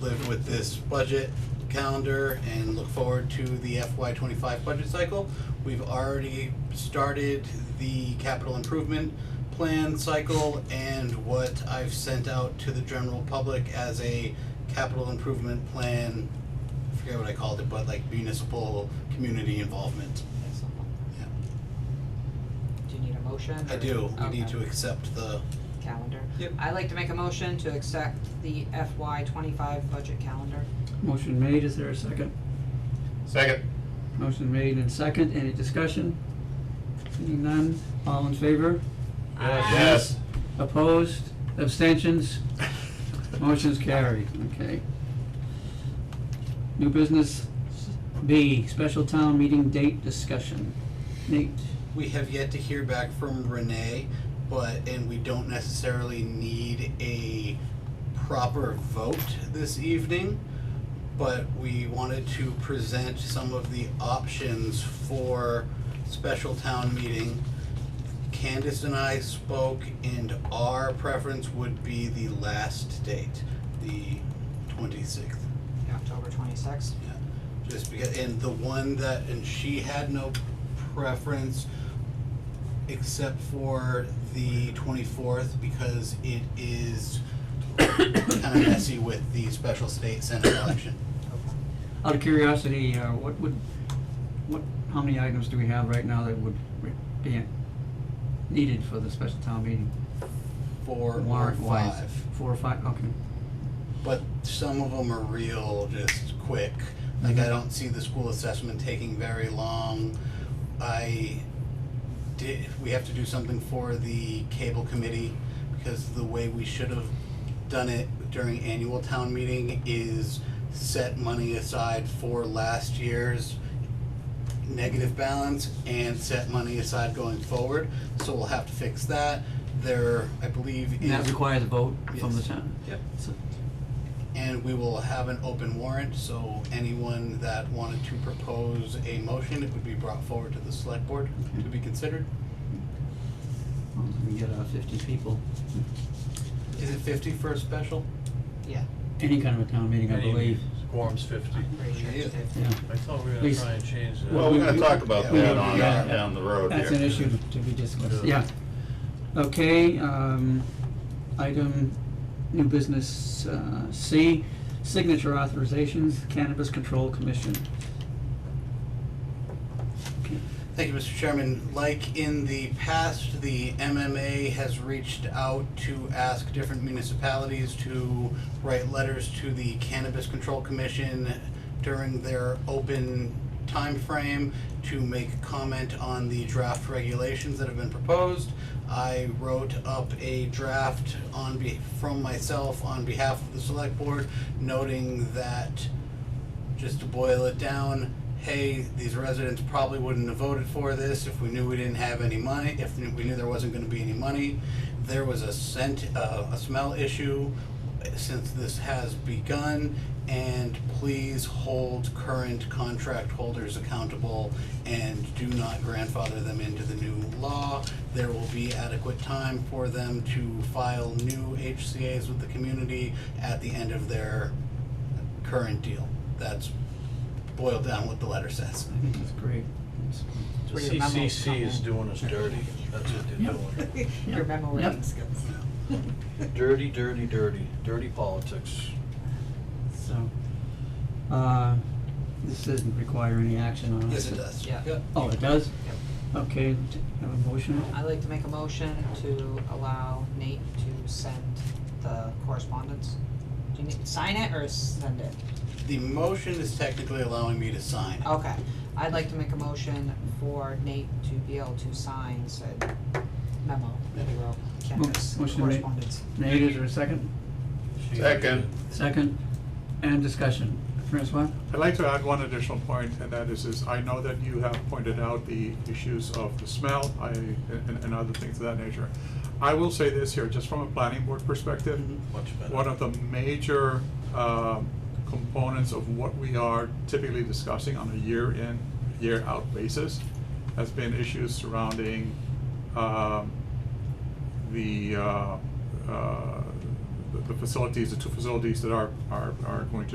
live with this budget calendar and look forward to the FY twenty-five budget cycle. We've already started the capital improvement plan cycle and what I've sent out to the general public as a capital improvement plan, I forget what I called it, but like municipal community involvement, yeah. Do you need a motion? I or- do, we need Okay. to accept the, Calendar. Yep. I'd like to make a motion to accept the FY twenty-five budget calendar. Motion made, is there a second? Second. Motion made and second, any discussion? Seeing none, all in favor? Yes. Opposed? Abstentions? Motion's carried, okay. New business B, special town meeting date discussion. Nate, we have yet to hear back from Renee, but, and we don't necessarily need a proper vote this evening, but we wanted to present some of the options for special town meeting. Candace and I spoke and our preference would be the last date, the twenty-sixth. October twenty-sixth. Yeah, just because, and the one that, and she had no preference except for the twenty-fourth because it is kinda messy with the special state senate election. out of curiosity, uh, what would, what, how many items do we have right now that would re- be needed for the special town meeting? Four or Warrant wise? five, Four or five, okay. but some of them are real, just quick. Like Mm-hmm. I don't see the school assessment taking very long. I did, we have to do something for the cable committee because the way we should have done it during annual town meeting is set money aside for last year's negative balance and set money aside going forward. So we'll have to fix that. There, I believe And that is- requires a vote from the Yes. town? Yep. So- And we will have an open warrant, so anyone that wanted to propose a motion, it would be brought forward to the select board to be considered. as long as We get uh, fifty people, Is it fifty for a special? Yeah, any kind of a town meeting, I believe. Quorum's fifty. I'm pretty sure it's Yeah. fifty. Yeah, I thought we were gonna Please. try and change that. Well, we're gonna talk about Yeah. that on, Yeah. down the road here. that's an issue to be discussed, Yeah. yeah. Okay, um, item, new business, uh, C, signature authorizations, Cannabis Control Commission. Okay. Thank you, Mr. Chairman. Like in the past, the MMA has reached out to ask different municipalities to write letters to the Cannabis Control Commission during their open timeframe to make comment on the draft regulations that have been proposed. I wrote up a draft on be, from myself on behalf of the select board noting that just to boil it down, hey, these residents probably wouldn't have voted for this if we knew we didn't have any money, if we knew there wasn't gonna be any money. There was a scent, uh, a smell issue since this has begun, and please hold current contract holders accountable and do not grandfather them into the new law. There will be adequate time for them to file new HCA's with the community at the end of their current deal. That's boiled down what the letter says. I think that's great. The Where your memos come CCC is in. doing us dirty, that's what they're doing. Your memo Yep. reading skills. Dirty, dirty, dirty, dirty politics. So, uh, this doesn't require any action on us. Yes, it does. Yeah. Yep. Oh, it does? Okay, t- have a motion? I'd like to make a motion to allow Nate to send the correspondence. Do you need, sign it or send it? The motion is technically allowing me to sign it. Okay, I'd like to make a motion for Nate to be able to sign said memo that he wrote, Kendra's motion made. correspondence. Nate, is there a second? She- Second. Second, and discussion. Francois? I'd like to add one additional point, and that is, is I know that you have pointed out the issues of the smell, I, and, and other things of that nature. I will say this here, just from a planning board perspective, Much better. one of the major, um, components of what we are typically discussing on a year-in, year-out basis has been issues surrounding, um, the, uh, uh, the- the facilities, the two facilities that are, are, are going to